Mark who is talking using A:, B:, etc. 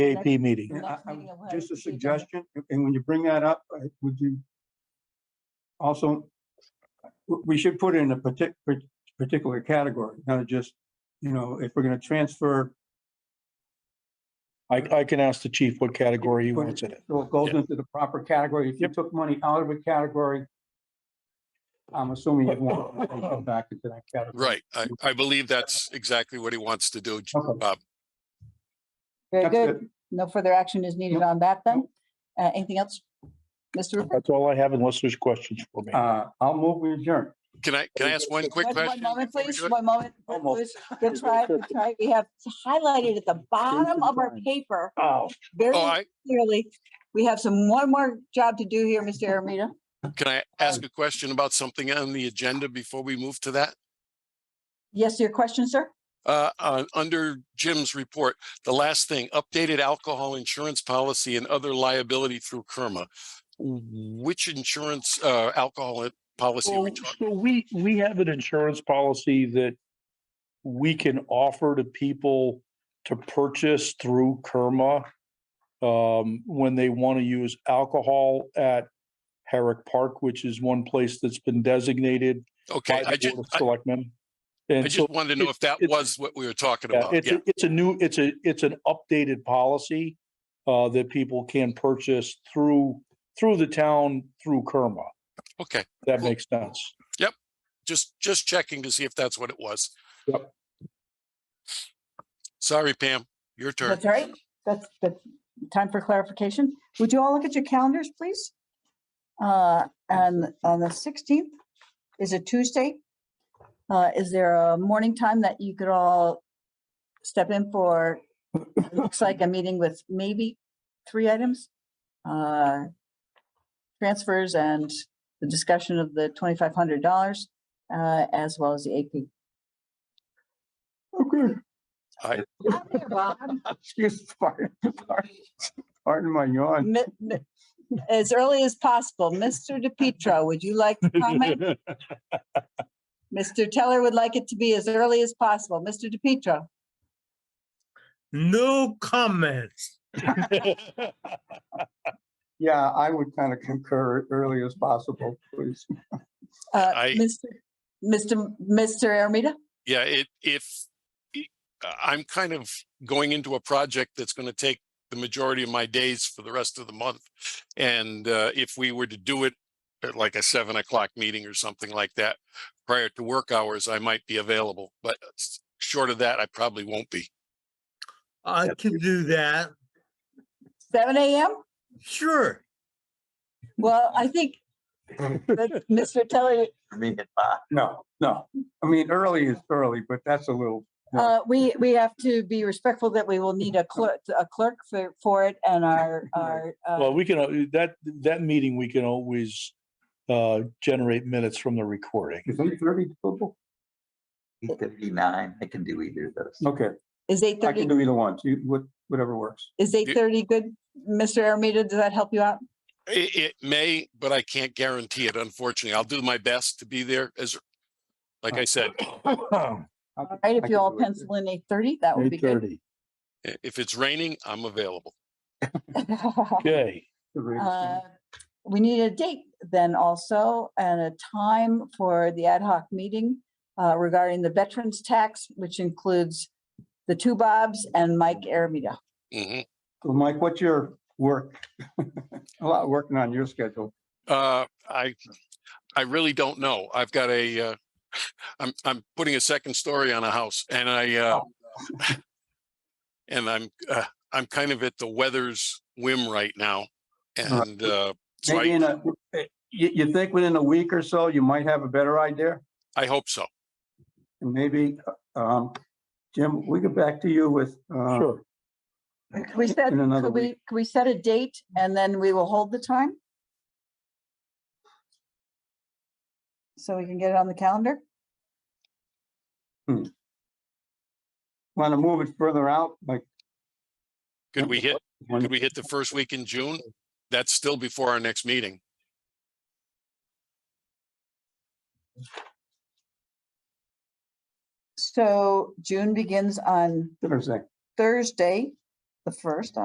A: AP meeting.
B: And I-
C: Next meeting,
B: I-
C: we'll have
B: Just
C: it
B: a
C: repeated.
B: suggestion, and- and when you bring that up, uh, would you also, w- we should put it in a partic- par- particular category, not just, you know, if we're gonna transfer,
A: I, I can ask the chief what category he wants it in.
B: so it goes
A: Yeah.
B: into the proper category. If you
A: Yep.
B: took money out of a category, I'm assuming you'd want to take it back into that category.
D: Right. I,
A: Mm-hmm.
D: I believe that's exactly what he wants to do, J-
B: Okay.
D: Bob.
C: Very
B: That's
C: good.
B: it.
C: No further action is needed on that then. Uh, anything else? Mr. Rupert?
A: That's all I have unless there's questions for me.
B: Uh, I'll move we adjourn.
D: Can I, can I ask one quick
C: One- One
D: question?
C: moment,
D: before we
C: please.
D: do it?
C: One moment.
A: Almost.
C: Good try, good try. We have highlighted at the bottom of our
A: time.
C: paper
A: Oh,
C: very
D: Oh, I,
C: clearly. We have some, one more job to do here, Mr. Aramita.
D: can I ask a question about something on the agenda before we move to that?
C: Yes, your question, sir?
D: Uh, uh, under Jim's report, the last thing, updated alcohol insurance policy and other liability through Kerma. Which insurance, uh, alcohol i- policy? are we
A: Well,
D: talking-
A: So we, we have an insurance policy that we can offer to people to purchase through Kerma um, when they want to use alcohol at Herrick Park, which is one place that's been designated by
D: Okay, I
A: the
D: just,
A: Board of
D: I
A: Selectmen.
D: I
A: And so
D: just wanted to know
A: it's-
D: if that
A: it's-
D: was what we were talking
A: yeah,
D: about.
A: it's,
D: Yeah,
A: a- it's a new, it's a, it's an updated policy uh, that people can purchase through, through the town, through Kerma.
D: okay.
A: That
D: Cool.
A: makes sense.
D: Just, just checking to see if that's what it was.
A: Yep.
D: Sorry, Pam, your turn.
C: That's all right. That's, that's time for clarification. Would you all look at your calendars, please? Uh, and on the sixteenth is a Tuesday. Uh, is there a morning time that you could all step in for? it Looks like a meeting with maybe three items. Uh, transfers and the discussion of the twenty-five hundred dollars, uh, as well as the AP.
B: Okay.
D: I-
C: I'm here, Bob.
B: Excuse, pardon, pardon- pardon my yawn.
C: Mi- mi- As early as possible. Mr. DePietro, would you like to comment? Mr. Teller would like it to be as early as possible. Mr. DePietro,
E: No comments.
B: Yeah, I would kind of concur early as possible, please.
C: uh,
D: I-
C: Mr. Mr. Mr. Aramita?
D: Yeah, it, if, i- I'm kind of going into a project that's going to take the majority of my days for the rest of the month. And uh, if we were to do it at like a seven o'clock meeting or something like that, prior to work hours, I might be available. But uh, s- short of that, I probably won't be.
E: I can do that.
C: Seven AM?
E: Sure.
C: Well, I think that Mr. Teller,
B: No, no. I mean, early is early, but that's a little, Yeah.
C: uh, we, we have to be respectful that we will need a clerk, a clerk for, for it and our, our, uh,
A: Well, we can, al- that, that meeting, we can always uh, generate minutes from the recording.
B: is eight thirty doable?
F: Eight thirty-nine, I can do either of those.
B: Okay,
C: is eight
B: I can
C: thirty,
B: do either one, you- what- whatever works.
C: is eight thirty good? Mr. Aramita, does that help you out?
D: It, it may, but I can't guarantee it, unfortunately. I'll do my best to be there as, like
B: Uh,
D: I said,
B: I
C: All
B: could-
C: right,
B: I
C: if you
B: could
C: all
B: do it.
C: pencil in eight thirty, that would be
A: Eight
C: good.
A: thirty.
D: i- if it's raining, I'm available.
A: Okay,
B: The rate is
C: Uh,
B: fine.
C: We need a date then also and a time for the ad hoc meeting uh, regarding the veterans tax, which includes the two Bobs and Mike Aramita.
D: Mhm.
B: So Mike, what's your work? A lot working on your schedule.
D: Uh, I, I really don't know. I've got a, uh, I'm, I'm putting a second story on a house and I, uh,
B: Oh.
D: and I'm, uh, I'm kind of at the weather's whim right now. And, uh, so
B: Maybe
D: I,
B: in a, eh, you, you think within a week or so, you might have a better idea?
D: I hope so.
B: And maybe, um, Jim, we get back to you with, uh,
A: sure.
C: Can we set,
B: In another
C: could we,
B: week.
C: could we set a date and then we will hold the time? So we can get it on the calendar?
B: want to move it further out, like,
D: Could we hit,
B: when-
D: could we hit the first week in June? That's still before our next meeting.
C: So June begins on
B: Thursday?
C: Thursday, the first,